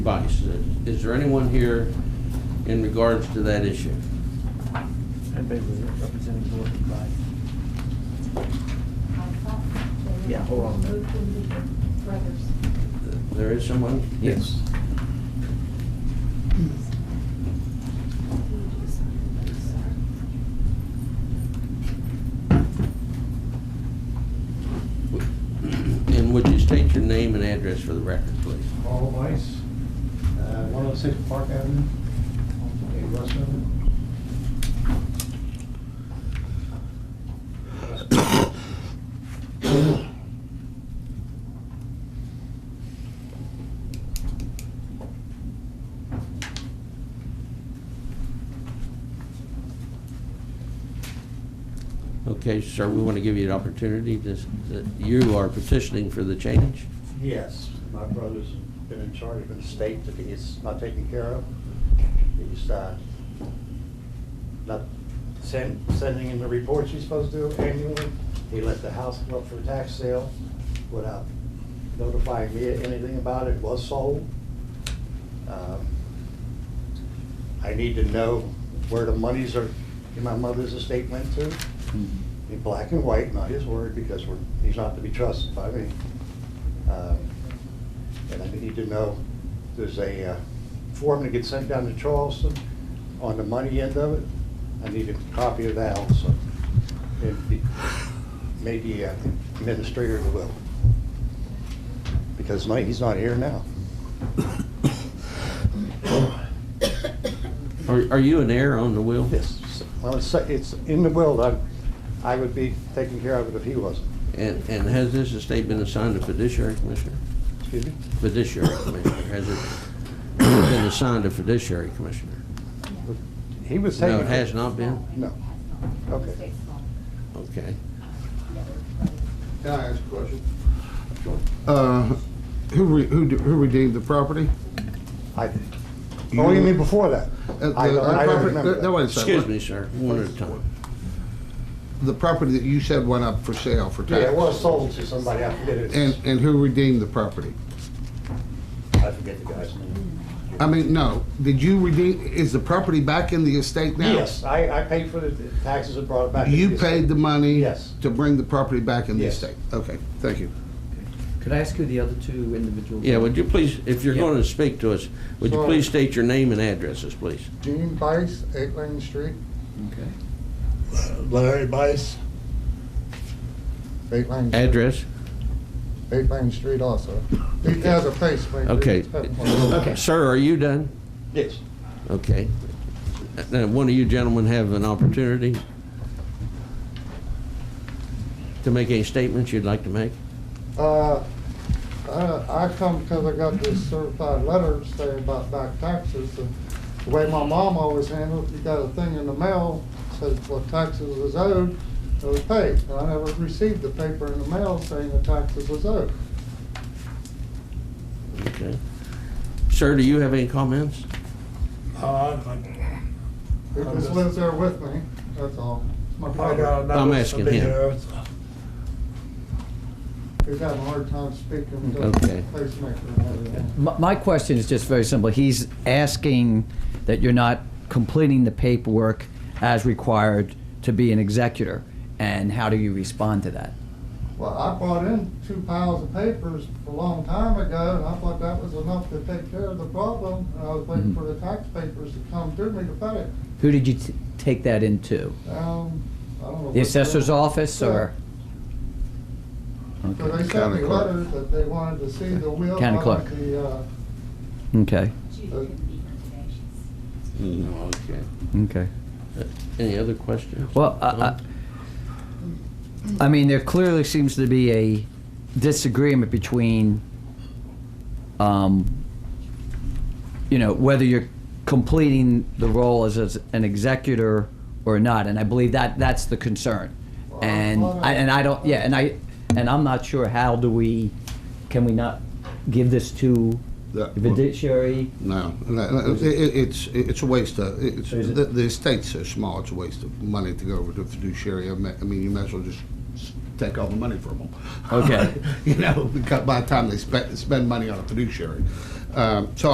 advice. Is there anyone here in regards to that issue? Anybody representing the board of advice? Yeah, hold on a minute. There is someone? Yes. And would you state your name and address for the record, please? Carl Weiss, uh, 106 Park Avenue, in Russell. Okay, sir, we want to give you an opportunity to, that you are petitioning for the change? Yes, my brother's been in charge of an estate that he's not taking care of. He's uh, not send- sending in the reports he's supposed to annually. He let the house go up for a tax sale without notifying me anything about it, was sold. Um, I need to know where the monies are, in my mother's estate went to, in black and white, not his word, because we're, he's not to be trusted by me. Um, And I need to know, there's a uh, form that gets sent down to Charleston on the money end of it. I need a copy of that also. And be- Maybe uh, administrator will. Because no, he's not here now. Are, are you an heir on the will? Yes, well, it's, it's in the will, I, I would be taking care of it if he wasn't. And, and has this estate been assigned to fiduciary commissioner? Excuse me? Fiduciary commissioner, has it been assigned to fiduciary commissioner? He was taking. No, it has not been? No. Okay. Uh, Okay. Can I ask a question? Uh, Who re- who de- who redeemed the property? I, oh, you mean before that? Uh, I the- don't, uh, I don't property- remember no, wait that. a second. Excuse me, sir, one at a time. The property that you said went up for sale for Yeah, tax? it was sold to somebody, I forget it. And and who redeemed the property? I forget the guy's name. I mean, no, did you redeem, is the property back in the estate now? Yes, I, I paid for the taxes and brought it back. to You the paid the money? Yes. To bring the property back in the Yes. estate? Okay, thank you. Could I ask who the other two individuals? Yeah, would you please, if you're Yeah. going to speak to us, would you Sorry. please state your name and addresses, please? Gene Bice, Eight Lane Street. Okay. Larry Bice. Eight Lane. Address? Eight Lane Street also. He has a pacemaker. Okay. Okay. Sir, are you done? Yes. Okay. Now, one of you gentlemen have an opportunity to make any statements you'd like to make? Uh, I, I come because I got this certified letter saying about back taxes. and The way my mom always handled, it, you got a thing in the mail, says what taxes was owed, it was paid. And I never received the paper in the mail saying the taxes was owed. Okay. Sir, do you have any comments? He just lives there with me, that's all. It's my I brother. got a I'm notice asking to be him. here. He's having a hard time speaking to Okay. the pacemaker. and everything. My my question is just very simple. He's asking that you're not completing the paperwork as required to be an executor, and how do you respond to that? Well, I brought in two piles of papers a long time ago, and I thought that was enough to take care of the problem. And I was waiting Mhm. for the tax papers to come to me to pay it. Who did you t- take that into? Um, I don't know. The what- assessor's office, or? So they Okay. sent me County clerk. letters that they wanted to see the will. County of clerk. The, uh, Okay, No, okay. Uh, okay. Any other questions? Well, I, I, I mean, there clearly seems to be a disagreement between, um, you know, whether you're completing the role as, as an executor or not, and I believe that that's the concern. And I, and I don't, yeah, and I, and I'm not sure how do we, can we not give this to the The- fiduciary? No, no, no, it- it- it's, it's a waste of, it's, Is it? the the estate's so small, it's a waste of money to go over to fiduciary. I me- I mean, you might as well just s- take all the money from them. Okay. You know, because by the time they spend, spend money on a fiduciary. Um, So